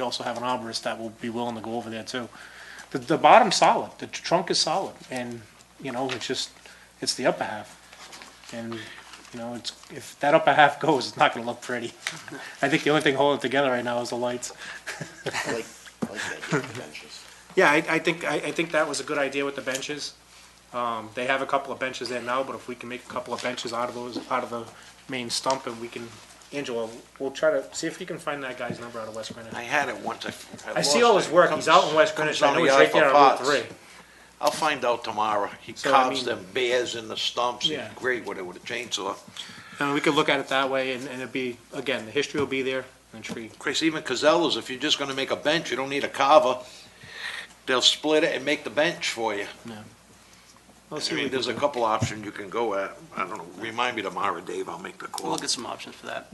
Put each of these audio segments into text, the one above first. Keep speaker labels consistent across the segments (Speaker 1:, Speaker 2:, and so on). Speaker 1: We also have an arborist that will be willing to go over there too. The, the bottom's solid, the trunk is solid, and, you know, it's just, it's the upper half. And, you know, it's, if that upper half goes, it's not gonna look pretty. I think the only thing holding it together right now is the lights.
Speaker 2: I like, I like that idea of benches.
Speaker 1: Yeah, I, I think, I, I think that was a good idea with the benches. Um, they have a couple of benches there now, but if we can make a couple of benches out of those, out of the main stump, and we can, Angela, we'll try to, see if you can find that guy's number out of West Greenwich.
Speaker 3: I had it once. I,
Speaker 1: I see all his work, he's out in West Greenwich, I know he's right there on Route three.
Speaker 3: I'll find out tomorrow. He
Speaker 1: So, I
Speaker 3: carves
Speaker 1: mean-
Speaker 3: them bears in the stumps. He's
Speaker 1: Yeah.
Speaker 3: great with it with a chainsaw.
Speaker 1: And Uh, we could look at it that way, and, and it'd be, again, the history will be there, and tree.
Speaker 3: Chris, even Casellas, if you're just going to make a bench, you don't need a carver. They'll split it and make the bench for you.
Speaker 1: Let's
Speaker 3: I
Speaker 1: see what we
Speaker 3: mean,
Speaker 1: can
Speaker 3: there's a
Speaker 1: do.
Speaker 3: couple options you can go at. I don't know. Remind me tomorrow, Dave. I'll make the
Speaker 4: We'll
Speaker 3: call.
Speaker 4: look at some options for that.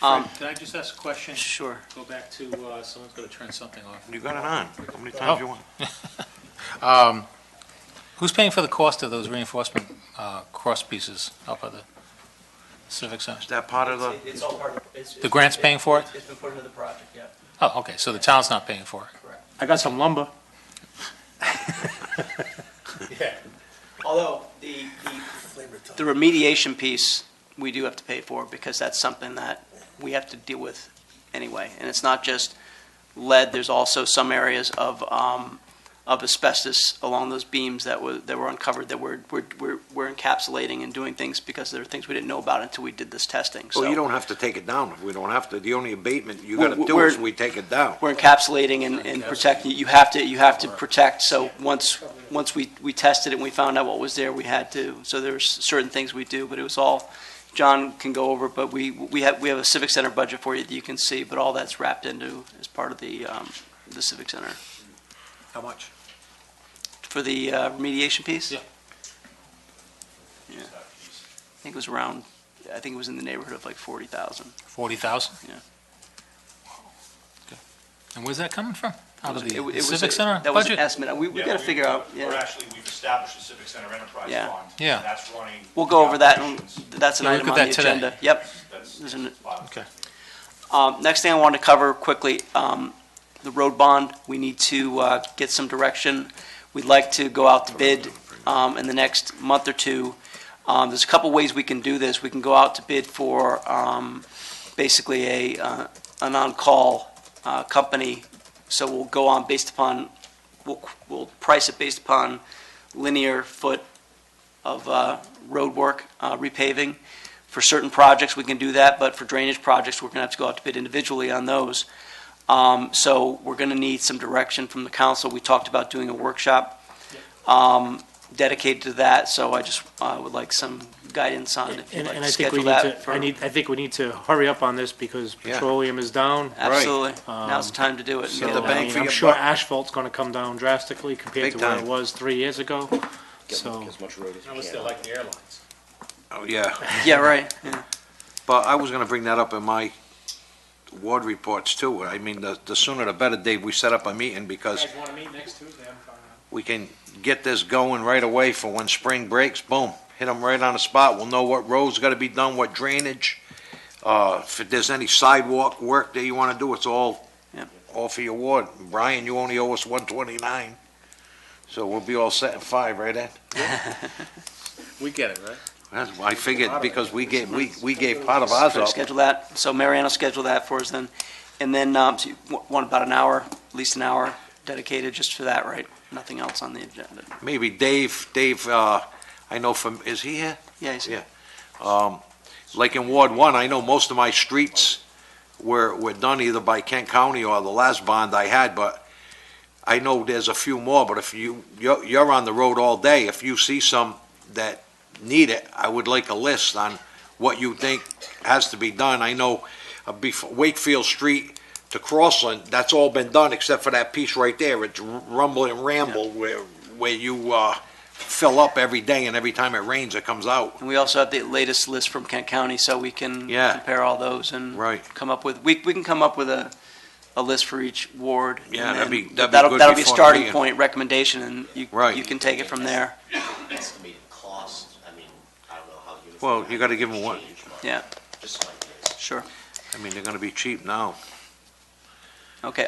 Speaker 4: Um,
Speaker 5: Can I just ask a question?
Speaker 4: Sure.
Speaker 5: Go back to, uh, someone's got to turn something off.
Speaker 3: You got it on. How
Speaker 1: Oh.
Speaker 3: many times you want?
Speaker 5: Who's paying for the cost of those reinforcement uh, cross pieces up at the Civic Center?
Speaker 3: Is that part of the?
Speaker 6: It's- It's all part of, it's.
Speaker 5: The grant's paying for it?
Speaker 6: It's been put into the project, yeah.
Speaker 5: Oh, okay, so the town's not paying for it.
Speaker 1: I got some lumber.
Speaker 6: Although, the, the the
Speaker 4: The remediation piece, we do have to pay for, because that's something that we have to deal with anyway. And it's not just lead, there's also some areas of, um, of asbestos along those beams that were, that were uncovered, that we're, we're, we're- we're encapsulating and doing things, because there are things we didn't know about until we did this testing, so.
Speaker 3: Well, you don't have to take it down if we don't have to. The only abatement you
Speaker 4: Well,
Speaker 3: got to do
Speaker 4: we're-
Speaker 3: is we take it down.
Speaker 4: We're encapsulating and, and protecting, you have to, you have to protect, so once, once we, we tested it and we found out what was there, we had to, so there's certain things we do, but it was all, John can go over, but we, we have, we have a civic center budget for you that you can see, but all that's wrapped into as part of the, um, the civic center.
Speaker 1: How much?
Speaker 4: For the uh, remediation piece?
Speaker 1: Yeah.
Speaker 4: Yeah. I think it was around, I think it was in the neighborhood of like forty thousand.
Speaker 5: 40,000?
Speaker 4: Yeah.
Speaker 5: Okay. And where's that coming from? Out
Speaker 4: It
Speaker 5: of
Speaker 4: was- it
Speaker 5: the
Speaker 4: was-
Speaker 5: Civic Center
Speaker 4: That was an
Speaker 5: budget?
Speaker 4: estimate, we, we
Speaker 7: Yeah,
Speaker 4: gotta
Speaker 7: we-
Speaker 4: figure out,
Speaker 7: Or
Speaker 4: yeah,
Speaker 7: actually, we've established a Civic Center Enterprise
Speaker 4: Yeah.
Speaker 7: Fund.
Speaker 5: Yeah.
Speaker 7: and That's running.
Speaker 4: we'll go over that, and
Speaker 7: operations.
Speaker 4: that's an
Speaker 5: Yeah, look
Speaker 4: item
Speaker 5: at
Speaker 4: on the
Speaker 5: that today.
Speaker 4: agenda. Yep,
Speaker 7: That's-
Speaker 4: There's an-
Speaker 7: Wow.
Speaker 5: Okay.
Speaker 4: Um, Next thing I want to cover quickly, um, the road bond, we need to uh, get some direction. We'd like to go out to bid um, in the next month or two. Um, There's a couple ways we can do this. We can go out to bid for um, basically a, uh, an on-call uh, company. So we'll go on based upon, we'll, we'll price it based upon linear foot of uh, road work, uh, repaving. For certain projects, we can do that, but for drainage projects, we're going to have to go out to bid individually on those. Um, So we're going to need some direction from the council. We talked about doing a workshop um, dedicated to that, so I just uh, would like some guidance on if you'd
Speaker 1: And,
Speaker 4: like
Speaker 1: and
Speaker 4: to
Speaker 1: I think we
Speaker 4: schedule
Speaker 1: need
Speaker 4: that.
Speaker 1: to,
Speaker 4: for-
Speaker 1: I need, I think we need to hurry up on this because
Speaker 3: Yeah.
Speaker 1: petroleum is down.
Speaker 4: Absolutely. Now's the time to do it.
Speaker 1: So,
Speaker 3: the
Speaker 1: I
Speaker 3: bang
Speaker 1: mean,
Speaker 3: for
Speaker 1: I'm
Speaker 3: your
Speaker 1: sure
Speaker 3: buck.
Speaker 1: asphalt's gonna come down drastically compared
Speaker 3: Big
Speaker 1: to where it
Speaker 3: time.
Speaker 1: was three years ago.
Speaker 2: Get
Speaker 1: So,
Speaker 2: as much road as you
Speaker 5: Unless
Speaker 2: can.
Speaker 5: like the airlines.
Speaker 3: Oh, yeah.
Speaker 4: Yeah, right. yeah.
Speaker 3: But I was gonna bring that up in my ward reports too. I mean, the, the sooner the better, Dave, we set up a meeting because
Speaker 1: wanna meet next Tuesday? I'm fine.
Speaker 3: we can get this going right away for when spring breaks, boom, hit them right on the spot. We'll know what roads gotta be done, what drainage, uh, if there's any sidewalk work that you wanna do, it's all,
Speaker 4: Yeah.
Speaker 3: all for your ward. Brian, you only owe us one twenty-nine, so we'll be all set in five, right, Ed?
Speaker 5: We get it, right?
Speaker 3: That's, I figured, because we gave, we, we gave part of ours
Speaker 4: Try to
Speaker 3: up.
Speaker 4: Schedule that, so Marianne will schedule that for us then. And then, um, so you wa- want about an hour, at least an hour dedicated just for that, right? Nothing else on the agenda.
Speaker 3: Maybe Dave, Dave, uh, I know from, is he here?
Speaker 4: Yeah, you see.
Speaker 3: Yeah. Um, Like in Ward One, I know most of my streets were, were done either by Kent County or the last bond I had, but I know there's a few more, but if you, you're, you're on the road all day, if you see some that need it, I would like a list on what you think has to be done. I know uh, bef- Wakefield Street to Crossland, that's all been done except for that piece right there. It's rumble and ramble where, where you, uh, fill up every day and every time it rains, it comes out.
Speaker 4: And we also have the latest list from Kent County, so we can
Speaker 3: Yeah.
Speaker 4: compare all those and
Speaker 3: Right.
Speaker 4: come up with, we, we can come up with a, a list for each ward.
Speaker 3: Yeah,
Speaker 4: and
Speaker 3: that'd be-
Speaker 4: then
Speaker 3: that'd be
Speaker 4: that'll-
Speaker 3: good
Speaker 4: That'll be a
Speaker 3: before the
Speaker 4: starting
Speaker 3: meeting.
Speaker 4: point recommendation, and you,
Speaker 3: Right.
Speaker 4: you can take it from there.
Speaker 2: Estimated cost, I mean, I don't know how you.
Speaker 3: Well, you gotta give 'em one.
Speaker 2: Change, but
Speaker 4: Yeah,
Speaker 2: Just like this.
Speaker 4: sure.
Speaker 3: I mean, they're gonna be cheap now.
Speaker 4: Okay,